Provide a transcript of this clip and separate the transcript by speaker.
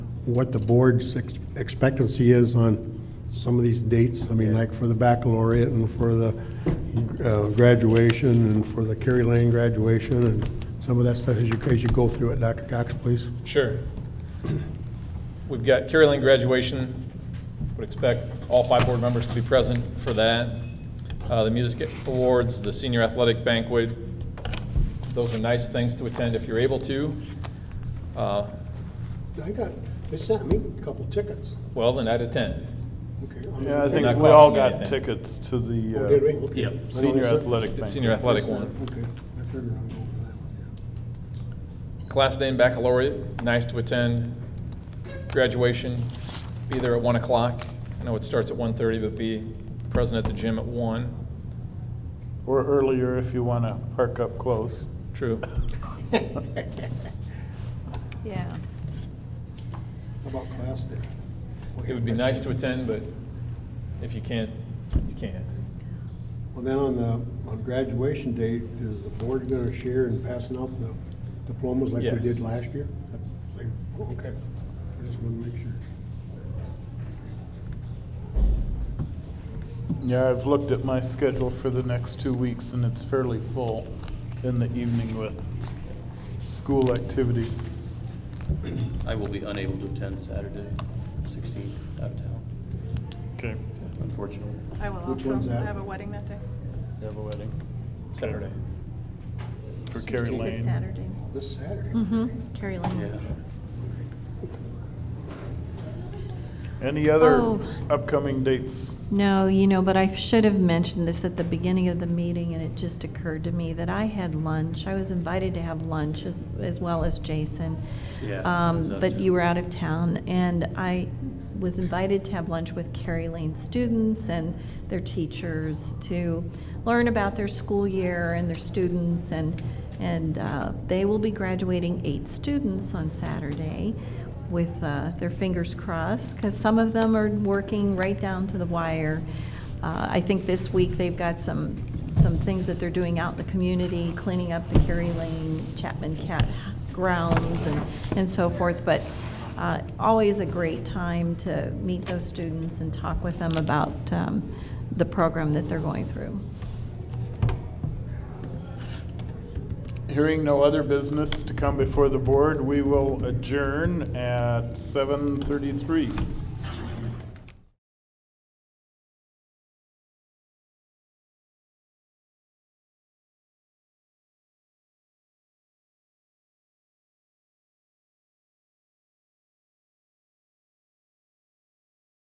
Speaker 1: what the board's ex- expectancy is on some of these dates. I mean, like for the baccalaureate and for the uh, graduation and for the Kerry Lane graduation and some of that stuff as you, as you go through it. Dr. Cox, please.
Speaker 2: Sure. We've got Carrie Lane graduation. Would expect all five board members to be present for that. Uh, The music awards, the senior athletic banquet. Those are nice things to attend if you're able to. Uh,
Speaker 1: I got, they sent me a couple tickets.
Speaker 2: Well, then I'd attend.
Speaker 3: Yeah, I
Speaker 2: Not
Speaker 3: think we all
Speaker 2: costing
Speaker 3: got
Speaker 2: anything.
Speaker 3: tickets to the. uh,
Speaker 1: Yep.
Speaker 3: Senior athletic
Speaker 2: The
Speaker 3: banquet.
Speaker 2: senior athletic one.
Speaker 1: Okay, I figure I'll go for that one.
Speaker 2: Class day and baccalaureate, nice to attend. Graduation, be there at 1 o'clock. I know it starts at 1:30, but be present at the gym at 1.
Speaker 3: Or earlier if you want to park up close.
Speaker 2: True.
Speaker 4: Yeah.
Speaker 1: How about class day?
Speaker 2: It would be nice to attend, but if you can't, you can't.
Speaker 1: Well, then on the, on graduation day, is the board gonna share in passing out the diplomas like we
Speaker 2: Yes.
Speaker 1: did last year? That's- like, Okay, I just wanna make sure.
Speaker 3: Yeah, I've looked at my schedule for the next two weeks and it's fairly full in the evening with school activities.
Speaker 5: I will be unable to attend Saturday, 16th, out of town,
Speaker 3: Okay.
Speaker 5: unfortunately.
Speaker 4: I will
Speaker 1: Which
Speaker 4: also,
Speaker 1: one's that?
Speaker 4: I have a wedding that day.
Speaker 3: You have a wedding
Speaker 2: Saturday.
Speaker 3: for Carrie
Speaker 4: This
Speaker 3: Lane.
Speaker 4: Saturday.
Speaker 1: This Saturday?
Speaker 4: Mm-hmm, Carrie
Speaker 5: Yeah.
Speaker 4: Lane.
Speaker 3: Any other
Speaker 4: Oh.
Speaker 3: upcoming dates?
Speaker 4: No, you know, but I should have mentioned this at the beginning of the meeting, and it just occurred to me that I had lunch. I was invited to have lunch as, as well as Jason.
Speaker 5: Yeah, I was
Speaker 4: Um,
Speaker 5: out
Speaker 4: but
Speaker 5: too.
Speaker 4: you were out of town, and I was invited to have lunch with Carrie Lane students and their teachers to learn about their school year and their students, and, and, uh, they will be graduating eight students on Saturday with uh, their fingers crossed, because some of them are working right down to the wire. Uh, I think this week they've got some, some things that they're doing out in the community, cleaning up the Kerry Lane Chapman Cat grounds and, and so forth. But uh, always a great time to meet those students and talk with them about um, the program that they're going through.
Speaker 3: Hearing no other business to come before the board, we will adjourn at 7:33.